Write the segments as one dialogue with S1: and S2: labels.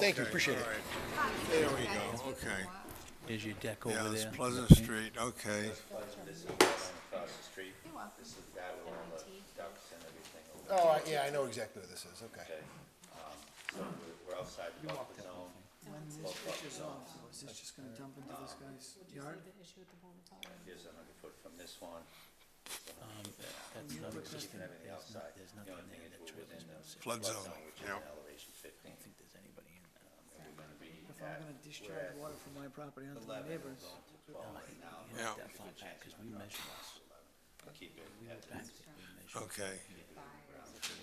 S1: Thank you, appreciate it.
S2: All right. There we go, okay.
S3: There's your deck
S2: Yeah,
S3: over
S2: it's
S3: there.
S2: Pleasant
S3: Okay.
S2: Street, okay.
S4: across the street. This is the guy with all the ducks and everything over
S1: Oh, I- yeah, I know exactly what this is, okay.
S4: there. Um, So we're- we're outside the buffer zone.
S5: When's this picture's off, though? Is this just gonna dump into this guy's yard?
S4: Here's another foot from this one.
S3: That's not existing.
S4: Keeping everything
S3: There's
S4: outside.
S3: not, there's
S4: The
S3: nothing
S4: only
S3: in
S4: thing
S3: there
S4: is
S3: that
S4: we're
S3: triggers
S4: within the
S3: notice. it.
S2: Flood zone,
S4: which is
S2: yeah.
S4: an elevation fifteen.
S3: I don't think there's anybody in there.
S4: And we're gonna be
S5: If I'm
S4: at
S5: gonna discharge water from my property onto my
S4: eleven, we're
S5: neighbors,
S4: going to twelve right now.
S3: You're not that far back, because we measure this.
S4: and Keep it at
S3: Back that we measure.
S2: Okay.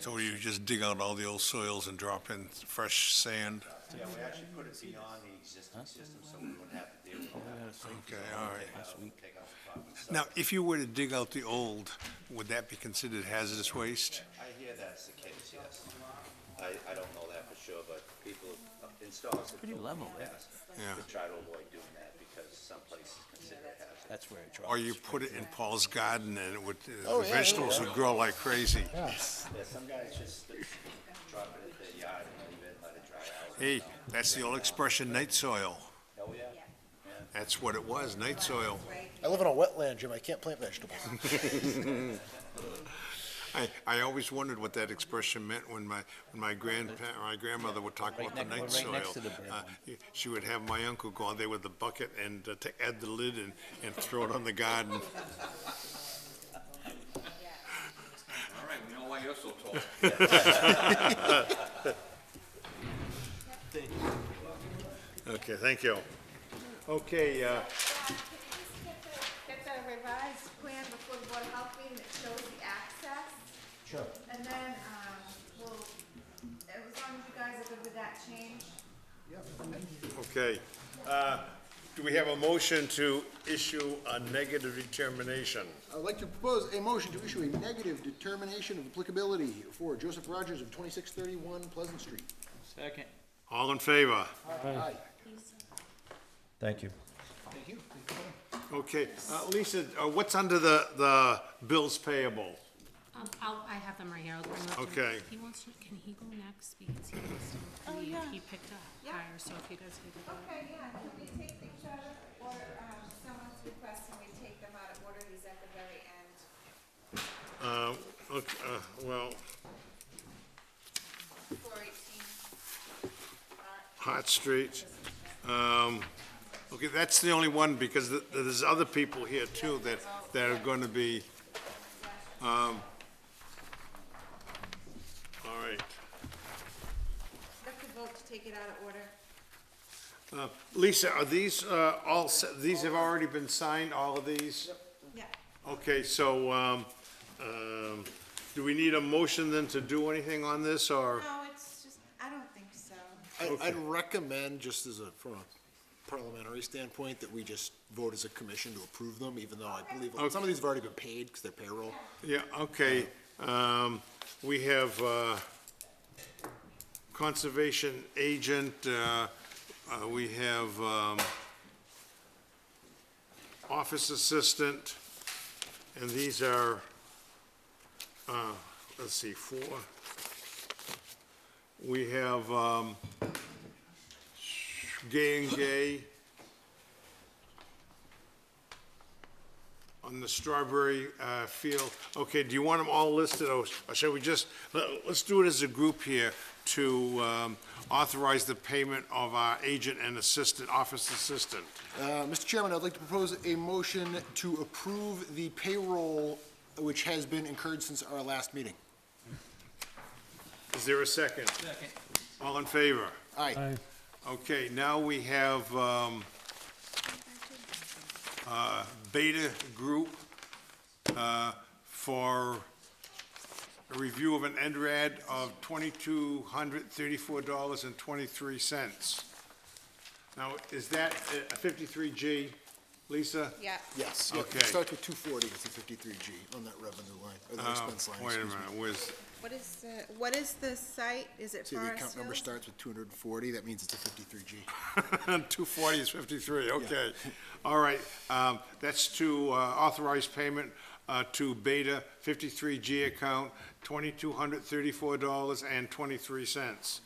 S2: So you just dig out all the old soils and drop in fresh sand?
S4: Yeah, we actually put it beyond the existing system, so we wouldn't have to deal with
S3: We
S4: that.
S3: gotta say,
S2: Okay, all right.
S4: Take out- Take out the problem. So
S2: Now, if you were to dig out the old, would that be considered hazardous waste?
S4: I hear that's the case, yes. I, I don't know that for sure, but people installers have
S3: Pretty
S4: told
S3: level
S4: me
S3: there.
S4: that,
S2: Yeah.
S4: To try to avoid doing that because some places consider it hazardous.
S3: That's where it drops.
S2: Or you put it in Paul's garden and it would,
S1: Oh,
S2: the
S1: yeah, yeah,
S2: vegetables
S1: yeah.
S2: would grow like crazy.
S4: Yeah, some guys just drop it at the yard and leave it, let it dry out.
S2: Hey, that's the old expression, night soil.
S4: Oh, yeah.
S2: That's what it was, night soil.
S1: I live on a wetland, Jim, I can't plant vegetables.
S2: I, I always wondered what that expression meant when my, when my grandpa, my grandmother would talk about the
S3: Right
S2: night
S3: next-
S2: soil.
S3: right next to the bird
S2: Uh, She would have my uncle go out there with the bucket and uh, to add the lid and, and throw it on the
S6: All
S2: garden.
S6: right, we know why you're so tall.
S2: Okay, thank you. Okay, uh,
S7: Get the revised plan before the Board of Health meeting that shows the access.
S1: Sure.
S7: And then, um, we'll, as long as you guys are good with that change.
S2: okay. Uh, Do we have a motion to issue a negative determination?
S1: I'd like to propose a motion to issue a negative determination of applicability for Joseph Rogers of twenty-six thirty-one Pleasant Street.
S3: Second.
S2: All in favor?
S1: Aye.
S4: Thank you.
S1: Thank you.
S2: Okay, uh, Lisa, uh, what's under the, the bills payable?
S8: Um, I'll, I have them right here, I'll bring them up.
S2: Okay.
S8: He wants to, can he go next, because he wants to,
S7: Oh,
S8: he,
S7: yeah.
S8: he picked up
S7: Yeah.
S8: higher, so if you guys could do that.
S7: Okay, yeah, can we take each other, or, um, someone's requesting we take them out of order, he's at the very end.
S2: Uh, okay, uh, Well,
S7: Four eighteen.
S2: Hot Street. Um, Okay, that's the only one, because th- there's other people here too that, that are going to be, um, all right.
S7: That's the vote to take it out of order.
S2: Uh, Lisa, are these uh, all, se- these have already been signed, all of these?
S7: Yeah.
S2: Okay, so um, um, do we need a motion then to do anything on this, or?
S7: No, it's just, I don't think so.
S9: I, I'd recommend, just as a, from a parliamentary standpoint, that we just vote as a commission to approve them, even though I believe, some of these have already been paid, because they're payroll.
S2: Yeah, okay, um, we have, uh, conservation agent, uh, uh, we have, um, office assistant, and these are, uh, let's see, four. We have, um, Gay and Gay on the strawberry uh, field. Okay, do you want them all listed, or or shall we just, let- let's do it as a group here to um, authorize the payment of our agent and assistant, office assistant?
S9: Uh, Mr. Chairman, I'd like to propose a motion to approve the payroll which has been incurred since our last meeting.
S2: Is there a second? Second. All in favor?
S9: Aye.
S2: Okay, now we have um, uh, Beta Group uh, for a review of an NRAD of $2,234.23. Now, is that uh, 53G, Lisa?
S7: Yeah.
S9: Yes, yeah,
S2: Okay.
S9: it starts with two forty, it's a fifty-three G on that revenue line, or the
S2: Uh,
S9: expense line,
S2: Wait a
S9: excuse me.
S2: minute, where's,
S7: What is the, what is the site? Is it
S9: See, the account
S7: Forest
S9: number
S7: Hills?
S9: starts with two hundred and forty, that means it's a fifty-three G.
S2: 240 is 53, okay. All right, um, that's to uh, authorize payment uh, to Beta 53G account, $2,234.23.